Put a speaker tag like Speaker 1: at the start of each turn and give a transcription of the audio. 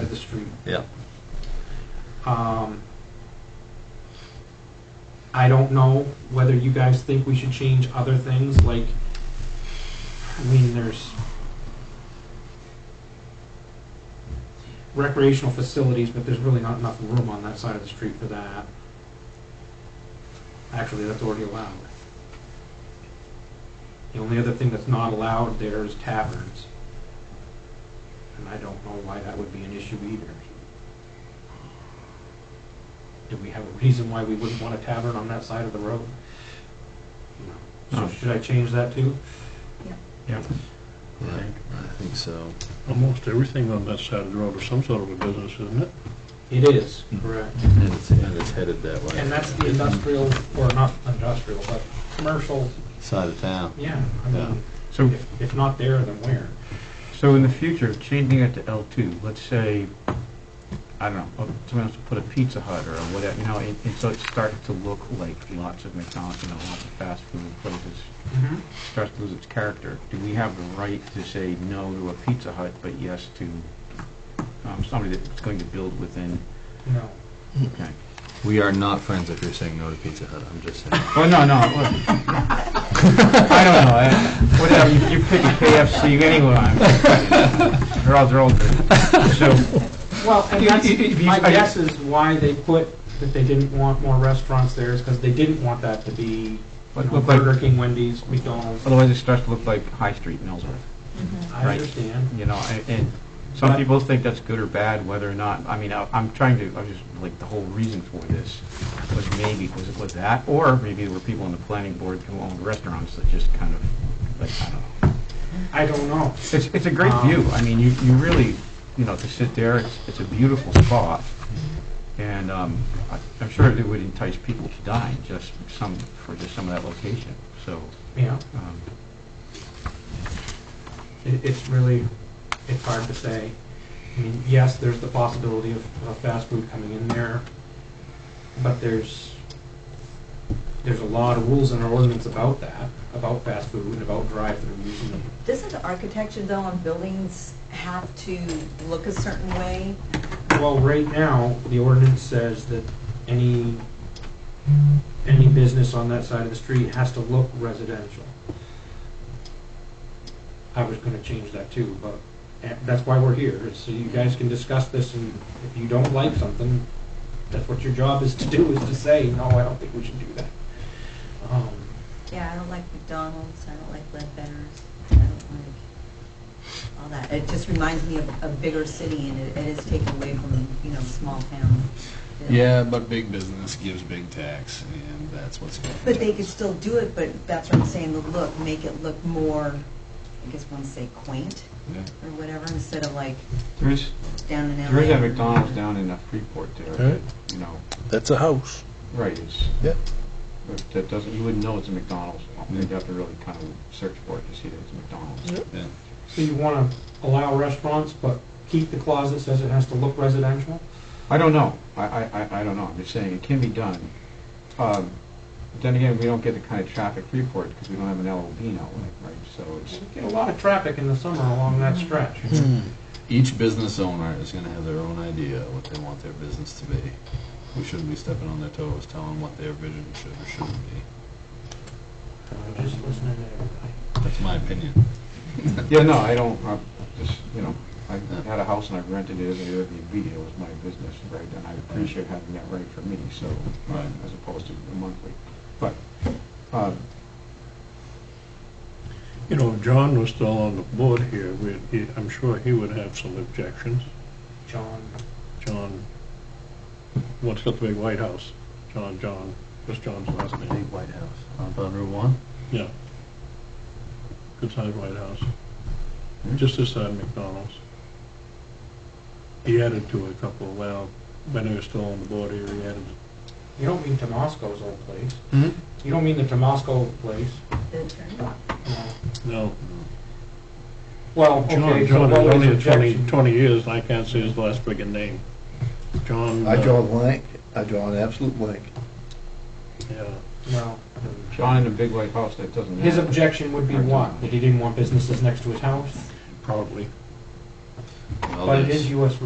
Speaker 1: street.
Speaker 2: Yeah.
Speaker 1: Um, I don't know whether you guys think we should change other things, like, I mean, there's recreational facilities, but there's really not enough room on that side of the street for that. Actually, that's already allowed. The only other thing that's not allowed there is taverns. And I don't know why that would be an issue either. Do we have a reason why we wouldn't want a tavern on that side of the road? No. So
Speaker 3: No.
Speaker 1: should I change that too?
Speaker 2: I I think so.
Speaker 3: Almost everything on that side of the road is some sort of a business, isn't it?
Speaker 1: It is, correct.
Speaker 2: And it's, and it's headed that way.
Speaker 1: And that's the industrial, or not industrial, but commercial,
Speaker 2: Side of town.
Speaker 1: yeah. I
Speaker 2: Yeah.
Speaker 1: mean,
Speaker 4: So,
Speaker 1: if- If not there, then where?
Speaker 4: so in the future, changing it to L2, let's say, I don't know, someone else put a Pizza Hut or whatever, you know, and and so it starts to look like lots of McDonald's and lots of fast food places,
Speaker 1: Mm-hmm.
Speaker 4: starts to lose its character. Do we have the right to say no to a Pizza Hut, but yes to um, somebody that's going to build within,
Speaker 1: No.
Speaker 4: okay?
Speaker 2: We are not friends if you're saying no to Pizza Hut, I'm just saying.
Speaker 4: Well, no, no. well, I don't know. I- Whatever, you you pick a KFC anyway. They're all, they're all good. So,
Speaker 1: Well, and
Speaker 4: If-
Speaker 1: that's,
Speaker 4: if- if you-
Speaker 1: my
Speaker 4: I-
Speaker 1: guess is why they put, that they didn't want more restaurants there is because they didn't want that to be, you
Speaker 4: But-
Speaker 1: know,
Speaker 4: but- but-
Speaker 1: Burger King, Wendy's, McDonald's.
Speaker 4: Otherwise, it starts to look like High Street in Ellsworth,
Speaker 1: I
Speaker 4: Right.
Speaker 1: understand.
Speaker 4: you know, and- and some people think that's good or bad, whether or not, I mean, I- I'm trying to, I was just, like, the whole reason for this was maybe, was it was that, or maybe there were people on the planning board who owned restaurants that just kind of, like, I don't know.
Speaker 1: I don't know.
Speaker 4: It's, it's a great
Speaker 1: Um,
Speaker 4: view. I mean, you, you really, you know, to sit there, it's, it's a beautiful spot. And um, I- I'm sure it would entice people to dine just some, for just some of that location. So,
Speaker 1: Yeah,
Speaker 4: um,
Speaker 1: it, it's really, it's hard to say. I mean, yes, there's the possibility of, of fast food coming in there, but there's, there's a lot of rules in our ordinance about that, about fast food and about drive-throughs and
Speaker 5: Doesn't the architecture though on buildings have to look a certain way?
Speaker 1: Well, right now, the ordinance says that any, any business on that side of the street has to look residential. I was gonna change that too, but eh, that's why we're here, is so you guys can discuss this, and if you don't like something, that's what your job is to do, is to say, no, I don't think we should do that. Um,
Speaker 5: Yeah, I don't like McDonald's, I don't like Ledbetter's, I don't like all that. It just reminds me of a bigger city and it, it is taken away from, you know, small town.
Speaker 6: Yeah, but big business gives big tax, and that's what's going on.
Speaker 5: But they could still do it, but that's what I'm saying, the look, make it look more, I guess one say quaint
Speaker 6: Yeah.
Speaker 5: or whatever, instead of like
Speaker 4: there is,
Speaker 5: down in LA.
Speaker 4: there is a McDonald's down in uh, Freeport there,
Speaker 3: Right.
Speaker 4: you know,
Speaker 3: That's a house.
Speaker 4: right, it's.
Speaker 3: Yeah.
Speaker 4: but That doesn't, you wouldn't know it's a McDonald's. You'd have to really kind of search for it to see that it's a McDonald's.
Speaker 6: Yeah.
Speaker 1: So you wanna allow restaurants, but keep the clause that says it has to look residential?
Speaker 4: I don't know. I, I, I- I don't know. I'm just saying, it can be done. Um, but Then again, we don't get the kind of traffic report because we don't have an LOB now, like, right? So it's,
Speaker 1: You Get a lot of traffic in the summer along that stretch.
Speaker 6: Each business owner is going to have their own idea of what they want their business to be. We shouldn't be stepping on their toes, telling them what their vision should or shouldn't be.
Speaker 1: I'm just listening to everybody.
Speaker 6: That's my opinion.
Speaker 4: yeah, no, I don't, i just, you know, I had a house and I rented it as an Airbnb. It was my business, right? And I appreciate having that right for me, so, uh,
Speaker 6: Right.
Speaker 4: as opposed to a monthly. But, um,
Speaker 3: You know, if John was still on the board here, we'd- he- I'm sure he would have some objections.
Speaker 1: John,
Speaker 3: John, what's got the big White House? John, John, what's John's last
Speaker 2: The
Speaker 3: name?
Speaker 2: big White House up on Route One.
Speaker 3: Yeah. Good-sized White House. Just this side of McDonald's. He added to a couple, well, when he was still on the board here, he added
Speaker 1: you don't mean Tomasco's old place?
Speaker 3: Hmm?
Speaker 1: You don't mean the Tomasco old place?
Speaker 5: The turn.
Speaker 1: No.
Speaker 3: No,
Speaker 1: Well,
Speaker 3: John,
Speaker 1: okay, so
Speaker 3: John is
Speaker 1: what was
Speaker 3: only
Speaker 1: the
Speaker 3: at 20,
Speaker 1: objection?
Speaker 3: 20 years, and I can't say his last friggin' name. John.
Speaker 7: I
Speaker 3: uh,
Speaker 7: draw a blank, I draw an absolute blank.
Speaker 3: Yeah,
Speaker 1: Well,
Speaker 4: John in the big white house, that doesn't.
Speaker 1: his
Speaker 4: matter.
Speaker 1: objection would be what? That he didn't want businesses next to his house?
Speaker 3: probably.
Speaker 6: Well,
Speaker 1: But it
Speaker 6: there's-
Speaker 1: is US